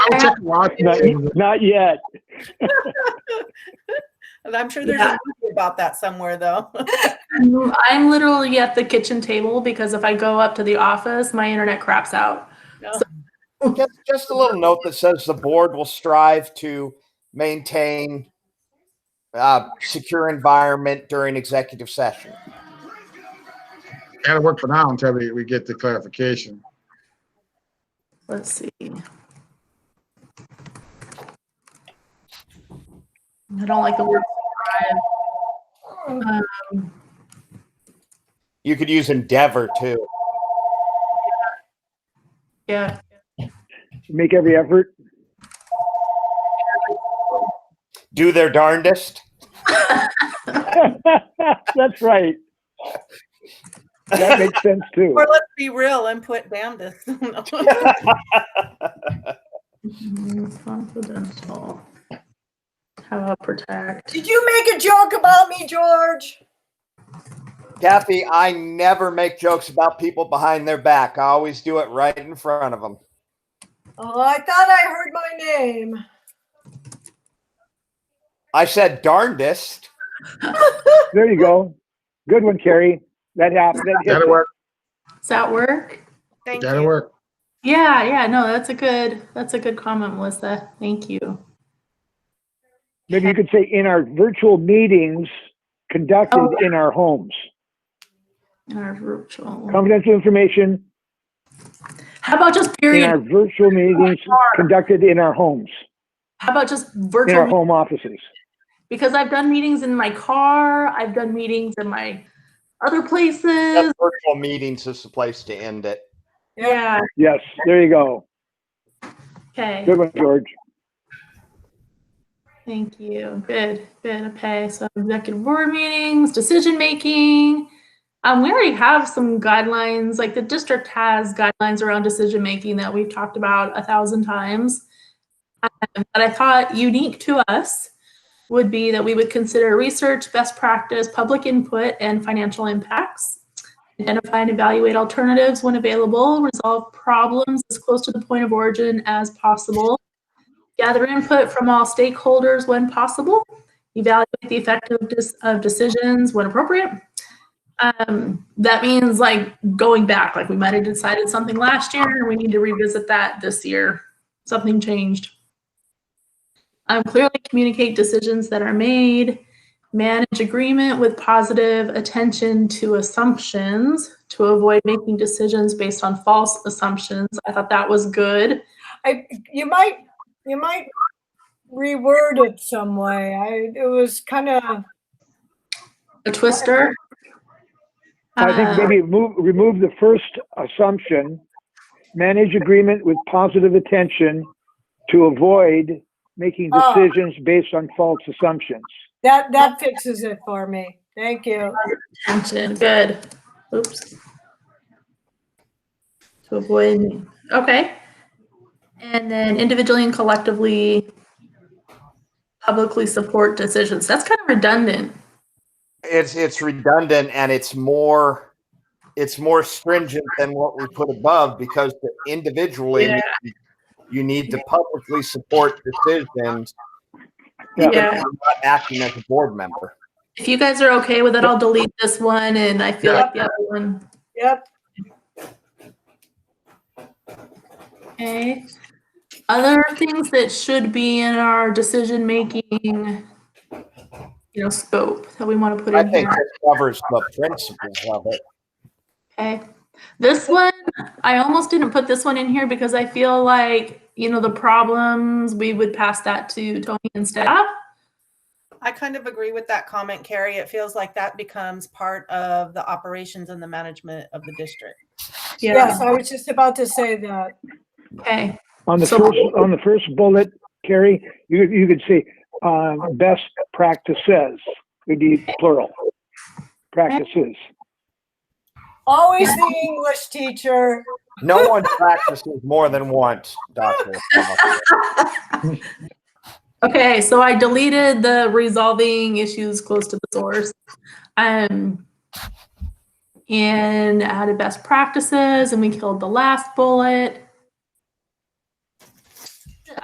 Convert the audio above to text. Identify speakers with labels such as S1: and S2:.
S1: have-
S2: Not, not yet.
S3: And I'm sure there's
S1: Yeah.
S3: a movie about that somewhere, though.
S1: I'm I'm literally at the kitchen table because if I go up to the office, my internet craps out.
S4: Just, just a little note that says the board will strive to maintain uh, secure environment during executive session.
S5: Gotta work for now until we, we get the clarification.
S1: Let's see. I don't like the word strive. Um,
S4: You could use endeavor too.
S1: yeah,
S2: Make every effort.
S4: Do their darndest.
S2: That's right. That makes sense too.
S3: Or let's be real and put damnedest.
S1: confidential. How about protect?
S6: Did you make a joke about me, George?
S4: Kathy, I never make jokes about people behind their back. I always do it right in front of them.
S6: Oh, I thought I heard my name.
S4: I said darndest.
S2: There you go. Good one, Carrie. That happened. That hit
S5: Gotta work,
S1: Does that work?
S3: Thank
S5: gotta
S3: you.
S5: work.
S1: Yeah, yeah, no, that's a good, that's a good comment, Melissa. Thank you.
S2: Maybe you could say in our virtual meetings conducted
S1: Oh.
S2: in our homes.
S1: In our virtual.
S2: Confidential information
S1: How about just
S2: in our
S1: period?
S2: virtual meetings conducted in our homes,
S1: How about just
S2: in our
S1: virtual?
S2: home offices.
S1: Because I've done meetings in my car, I've done meetings in my other places.
S4: That's Virtual meetings is the place to end it.
S1: Yeah,
S2: Yes, there you go.
S1: okay.
S2: Good one, George.
S1: Thank you. Good, good. Okay, so executive board meetings, decision making. Um, we already have some guidelines, like the district has guidelines around decision making that we've talked about a thousand times. Um, But I thought unique to us would be that we would consider research, best practice, public input, and financial impacts. Identify and evaluate alternatives when available, resolve problems as close to the point of origin as possible gather input from all stakeholders when possible, evaluate the effectiveness of decisions when appropriate. Um, that means like going back, like we might have decided something last year and we need to revisit that this year. Something changed. Um, clearly communicate decisions that are made, manage agreement with positive attention to assumptions to avoid making decisions based on false assumptions. I thought that was good.
S6: I you might you might reword it some way. I it was kind of
S1: a twister.
S2: I think
S1: Uh,
S2: maybe move, remove the first assumption, manage agreement with positive attention to avoid making
S6: Oh.
S2: decisions based on false assumptions.
S6: that that fixes it for me. Thank you.
S1: attention. Good. Oops. To avoid. Okay. And then individually and collectively publicly support decisions. That's kind of redundant.
S4: It's it's redundant and it's more it's more stringent than what we put above because individually
S1: Yeah.
S4: you need to publicly support decisions
S2: Yeah.
S4: even if you're not acting as a board member.
S1: If you guys are okay with it, I'll delete this one and I feel
S5: Yeah.
S1: like the other one.
S6: Yep.
S1: Okay. Other things that should be in our decision making, you know, scope that we want to put
S4: I
S1: in
S4: think
S1: here.
S4: this covers the principles of it.
S1: Okay. This one, I almost didn't put this one in here because I feel like, you know, the problems, we would pass that to Tony and staff.
S3: I kind of agree with that comment, Carrie. It feels like that becomes part of the operations and the management of the district.
S6: Yes, I was just about to say that.
S1: Okay.
S2: On the
S1: So-
S2: first, on the first bullet, Carrie, you, you could say, uh, best practices would be plural. Practices.
S6: Always the English teacher.
S4: No one practices more than once, Doctor.
S1: Okay, so I deleted the resolving issues close to the source. Um, and added best practices and we killed the last bullet.